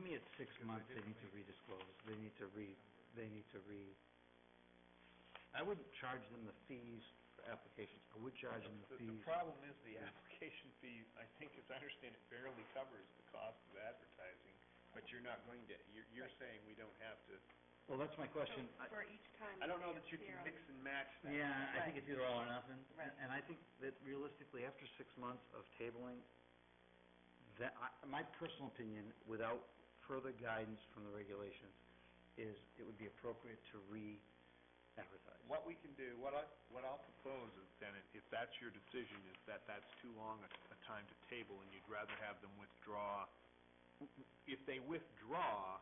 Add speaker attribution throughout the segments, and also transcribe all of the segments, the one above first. Speaker 1: think it's six months they need to redisclose, they need to re, they need to re, I wouldn't charge them the fees for applications, I would charge them the
Speaker 2: The, the
Speaker 1: fees.
Speaker 2: problem is the application fee, I think, as I understand it, barely covers the cost of advertising, but you're not going to, you're, you're saying we don't have to,
Speaker 1: Well, that's my question, I,
Speaker 3: For each time.
Speaker 2: I don't know
Speaker 3: say
Speaker 2: that
Speaker 3: it's
Speaker 2: you can
Speaker 3: zero.
Speaker 2: mix and match that.
Speaker 1: yeah, I
Speaker 3: Right.
Speaker 1: think it's either all or nothing.
Speaker 3: Right.
Speaker 1: And I think that realistically, after six months of tabling, that, I, my personal opinion, without further guidance from the regulations, is it would be appropriate to re-advertise.
Speaker 2: What we can do, what I, what I'll propose is then, if- if that's your decision, is that that's too long a, a time to table and you'd rather have them withdraw. If they withdraw,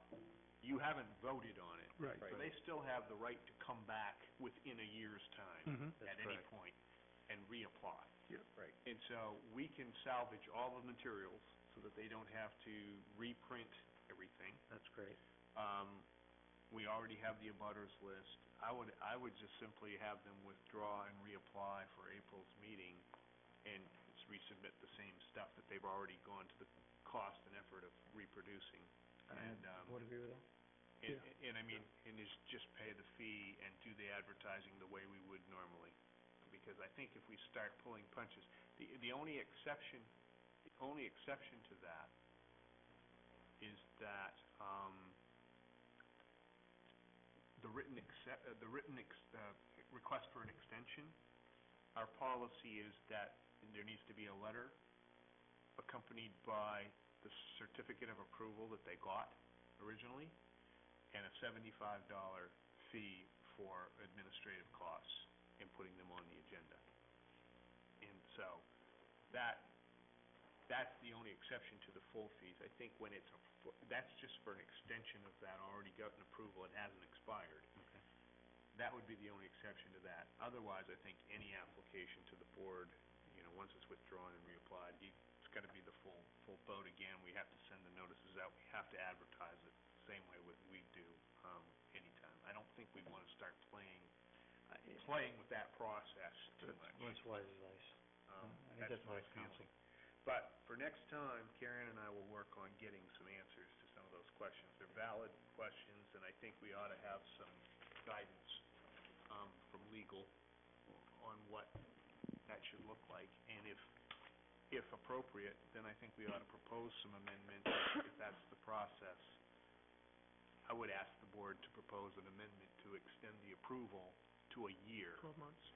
Speaker 2: you haven't voted on it.
Speaker 4: Right.
Speaker 2: So they still have the right to come back within a year's time
Speaker 4: Mm-hmm.
Speaker 1: That's
Speaker 2: at any
Speaker 1: correct.
Speaker 2: point and reapply.
Speaker 4: Yep.
Speaker 2: Right. And so we can salvage all the materials so that they don't have to reprint everything.
Speaker 1: That's great.
Speaker 2: Um, we already have the abutters list. I would, I would just simply have them withdraw and reapply for April's meeting and s- resubmit the same stuff that they've already gone to the cost and effort of reproducing. And, um,
Speaker 1: Would agree with that?
Speaker 2: And,
Speaker 4: Yeah.
Speaker 2: and I mean, and is just pay the fee and do the advertising the way we would normally. Because I think if we start pulling punches, the, the only exception, the only exception to that is that, um, the written accept, uh, the written ex, uh, request for an extension, our policy is that there needs to be a letter accompanied by the certificate of approval that they got originally and a seventy-five dollar fee for administrative costs in putting them on the agenda. And so, that, that's the only exception to the full fees. I think when it's, a fu- that's just for an extension of that already gotten approval, it hasn't expired.
Speaker 1: Okay.
Speaker 2: That would be the only exception to that. Otherwise, I think any application to the board, you know, once it's withdrawn and reapplied, you- it's gotta be the full, full vote again. We have to send the notices out, we have to advertise it same way what we do, um, anytime. I don't think we wanna start playing, playing with that process too much.
Speaker 1: That's wise advice.
Speaker 2: Um,
Speaker 1: I think
Speaker 2: that's
Speaker 1: that's
Speaker 2: my
Speaker 1: wise counsel.
Speaker 2: feeling. But for next time, Karen and I will work on getting some answers to some of those questions. They're valid questions, and I think we ought to have some guidance, um, from legal on what that should look like. And if, if appropriate, then I think we ought to propose some amendments, if that's the process. I would ask the board to propose an amendment to extend the approval to a year.
Speaker 4: Twelve months.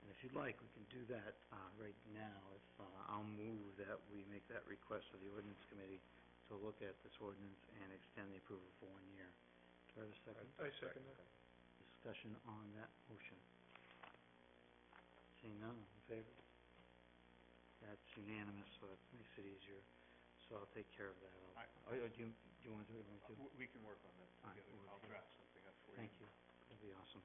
Speaker 1: And if you'd like, we can do that, uh, right now, if, uh, I'll move that we make that request of the ordinance committee to look at this ordinance and extend the approval for one year. Do I have a second?
Speaker 4: I second that.
Speaker 1: Discussion on that motion. Seeing none, all in favor? That's unanimous, so that makes it easier, so I'll take care of that.
Speaker 2: I-
Speaker 1: Oh, yeah, do you, do you want to do it, Mike, too?
Speaker 2: W- We can work on that
Speaker 1: All right,
Speaker 2: together.
Speaker 1: we'll
Speaker 2: I'll
Speaker 1: do
Speaker 2: draft something up for you.
Speaker 1: Thank you. That'd be awesome.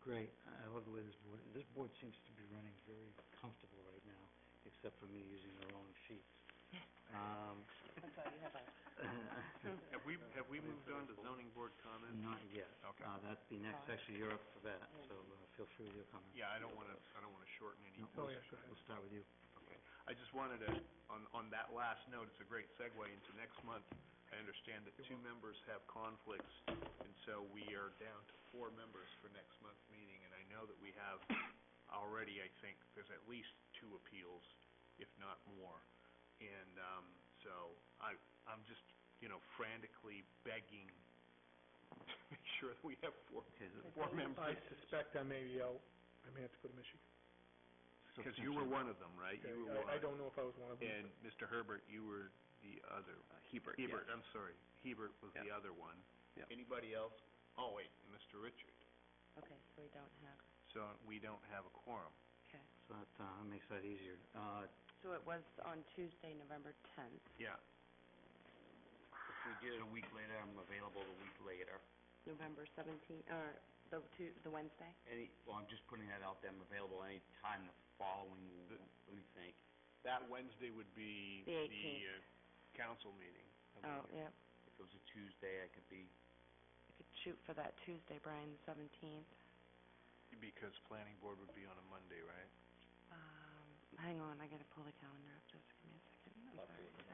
Speaker 1: Great. I I love the way this board, this board seems to be running very comfortable right now, except for me using the wrong sheets. Um,
Speaker 3: That's all you have on.
Speaker 2: Have we, have we moved on to zoning board comments?
Speaker 1: Not yet.
Speaker 2: Okay.
Speaker 1: Uh, that'd be next.
Speaker 3: Oh.
Speaker 1: Actually, you're up for that, so uh, feel free with your comments.
Speaker 2: Yeah, I don't wanna, I don't wanna shorten any.
Speaker 1: No,
Speaker 4: Oh,
Speaker 1: we'll-
Speaker 4: yeah, go ahead.
Speaker 1: We'll start with you.
Speaker 2: Okay. I just wanted to, on, on that last note, it's a great segue into next month. I understand that two members have conflicts, and so we are down to four members for next month's meeting. And I know that we have already, I think, there's at least two appeals, if not more. And, um, so I, I'm just, you know, frantically begging to make sure that we have four,
Speaker 1: Okay, so-
Speaker 2: four members.
Speaker 4: I suspect I may be out, I may have to go to Michigan.
Speaker 1: so
Speaker 2: Because you were
Speaker 1: since-
Speaker 2: one of them, right? You were one.
Speaker 4: I, I don't know if I was one of them.
Speaker 2: And Mr. Herbert, you were the other.
Speaker 5: Uh, Hebert, yes.
Speaker 2: Hebert, I'm sorry. Hebert was the other one.
Speaker 5: Yeah.
Speaker 2: Anybody else? Oh, wait, Mr. Richard.
Speaker 3: Okay, so we don't have,
Speaker 2: So we don't have a quorum.
Speaker 3: okay.
Speaker 1: So that, uh, makes that easier. Uh,
Speaker 3: So it was on Tuesday, November tenth.
Speaker 2: Yeah.
Speaker 5: If we do it a week later, I'm available a week later.
Speaker 3: November seventeenth, or the two, the Wednesday?
Speaker 5: Any, well, I'm just putting that out there, I'm available any time the following,
Speaker 2: The-
Speaker 5: let me think.
Speaker 2: That Wednesday would be
Speaker 3: The 18th.
Speaker 2: uh, council meeting. I
Speaker 3: Oh,
Speaker 2: believe.
Speaker 3: yeah.
Speaker 5: If it was a Tuesday, I could be,
Speaker 3: I could shoot for that Tuesday, Brian, the seventeenth.
Speaker 2: Because planning board would be on a Monday, right?
Speaker 3: Um, hang on, I gotta pull the calendar up, just give me a second. I'm sorry.